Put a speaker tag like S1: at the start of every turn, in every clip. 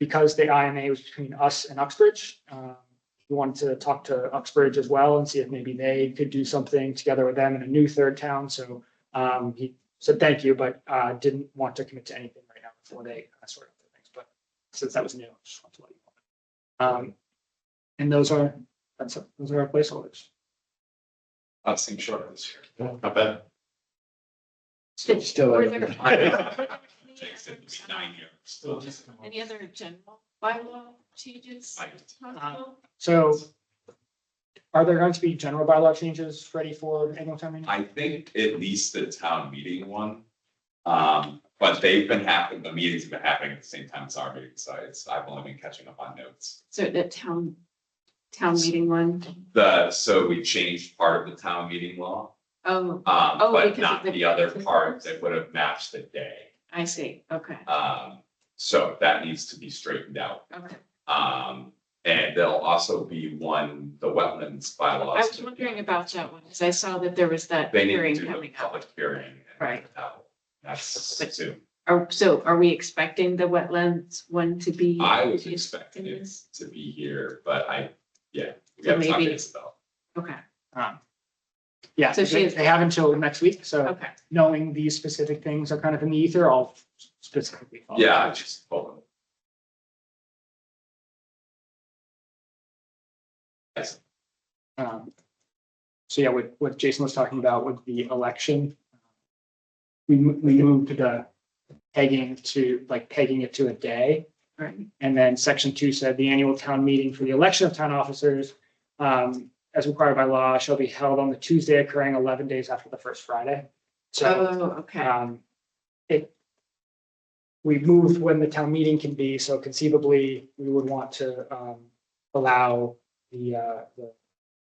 S1: because the IMA was between us and Uxbridge, um, we wanted to talk to Uxbridge as well and see if maybe they could do something together with them in a new third town. So um, he said thank you, but uh, didn't want to commit to anything right now before they uh, sort of things. But since that was new, I just wanted to let you know. Um, and those are, that's, those are our placeholders.
S2: I've seen short this year. Not bad.
S3: Still.
S4: Were
S3: over
S4: there-
S3: there.
S2: Takes it to be nine years. Still just-
S4: Any other general bylaw changes? Possible?
S1: So are there going to be general bylaw changes ready for annual town meeting?
S2: I think at least the town meeting one. Um, but they've been happening, the meetings have been happening at the same time as our meeting, so it's, I've only been catching up on notes.
S4: So the town, town meeting one,
S2: The, so we changed part of the town meeting law,
S4: oh,
S2: um,
S4: Oh, because
S2: but
S4: of
S2: not
S4: the-
S2: the other part that would have matched the day.
S4: I see, okay,
S2: Um, so that needs to be straightened out.
S4: okay.
S2: Um, and there'll also be one, the wetlands bylaws.
S4: I was wondering about uh, that one, because I saw that there was that
S2: They need to
S4: hearing
S2: do the
S4: coming up.
S2: public hearing. and
S4: Right.
S2: that- That's
S4: But-
S2: soon.
S4: Are, Oh, so are we expecting the wetlands one to be?
S2: I was
S4: in
S2: expecting it
S4: this?
S2: to be here, but I, yeah. we
S4: So
S2: gotta talk to
S4: maybe-
S2: Isabel.
S4: Okay,
S1: Um, Yeah,
S4: So she
S1: they
S4: is-
S1: they have until next week, so
S4: okay,
S1: knowing these specific things are kind of in the ether, I'll specifically.
S5: Oh,
S1: follow
S2: Yeah, I
S1: up.
S2: just hold on. Yes,
S1: Um, So yeah, what, what Jason was talking about with the election. We, mo- we moved the pegging to, like pegging it to a day.
S4: right.
S1: And then section two said the annual town meeting for the election of town officers, um, as required by law, shall be held on the Tuesday occurring eleven days after the first Friday. So.
S4: Oh, okay,
S1: Um, it. We moved when the town meeting can be, so conceivably, we would want to, um, allow the, uh, the.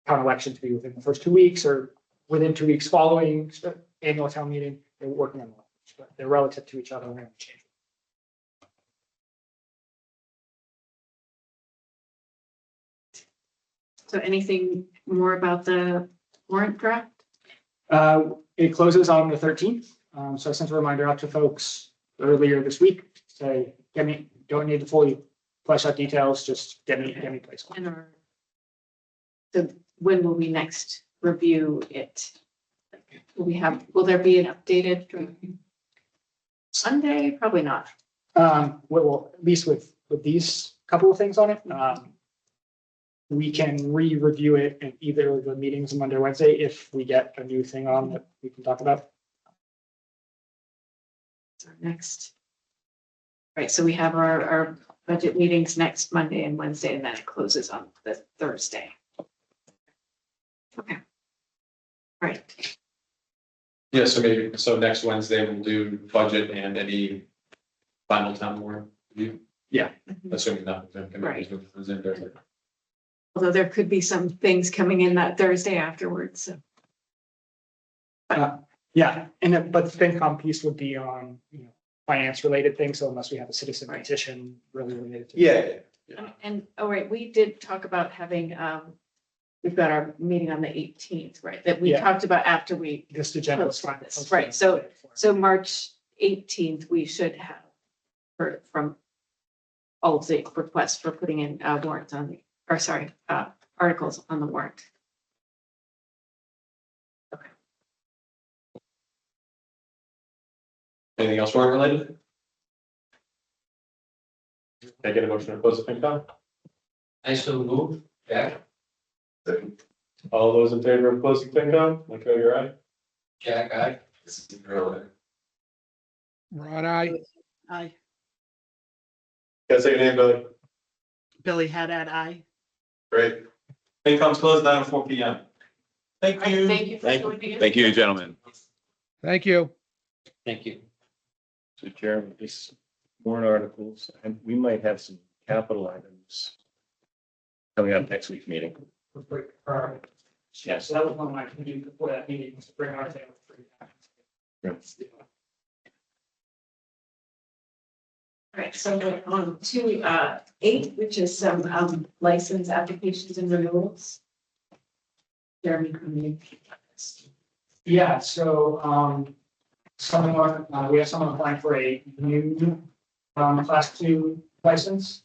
S1: Town election to be within the first two weeks or within two weeks following the annual town meeting, they're working on. that, But they're relative to each other, we're gonna change.
S4: so anything more about the warrant draft?
S1: Uh, it closes on the thirteenth, um, so I sent a reminder out to folks earlier this week, say, get me, don't need to fully flesh out details, just get me, get me place.
S4: And or so when will we next review it? Will we have, will there be an updated drawing? Sunday? Probably not.
S1: Um, well, well, at least with, with these couple of things on it, um. We can re-review it in either of the meetings Monday, or Wednesday, if we get a new thing on that we can talk about.
S4: It's our Next. Right, so we have our, our budget meetings next Monday and Wednesday, and then it closes on the Thursday. Okay. Right,
S5: Yeah, so maybe, so next Wednesday we'll do budget and any final town warrant review.
S1: Yeah.
S5: Assuming nothing.
S4: Right.
S5: comes in there.
S4: although there could be some things coming in that Thursday afterwards, so.
S1: Yeah, and then, but the FinCom piece would be on, you know, finance related things, so unless we have a citizen
S4: Right.
S1: petition really related to.
S5: Yeah.
S4: And- And, oh, right, we did talk about having, um, we've got our meeting on the eighteenth, right, that we
S1: Yeah.
S4: talked about after we,
S1: This agenda is fine.
S4: Post this, right, so March eighteenth, we should have heard from all of the requests for putting in uh, warrants on the, or sorry, uh, articles on the warrant.
S5: Anything else warrant related? Can I get a motion to close the FinCom?
S3: I still move, Jack,
S5: All those in favor of closing FinCom, like, oh, you're right.
S3: Jack, I.
S2: this is really-
S6: Rod, I,
S7: Aye.
S5: Gotta say your name, Billy.
S7: Billy Haddad, aye.
S5: Great. FinCom's closed nine oh four P M. Thank you.
S4: Thank you for
S2: Thank-
S4: joining us.
S2: Thank you, gentlemen.
S6: thank you.
S3: Thank you.
S8: So Chairman, this warrant articles, and we might have some capital items coming up next week's meeting.
S1: Yeah, so that was one I can do before that meeting, was to bring our. thing up.
S4: All right, so we're on to uh eight, which is some um license applications and renewals. Jeremy, come in.
S1: Yeah, so, um, someone, uh, we have someone applying for a new, um, class two license.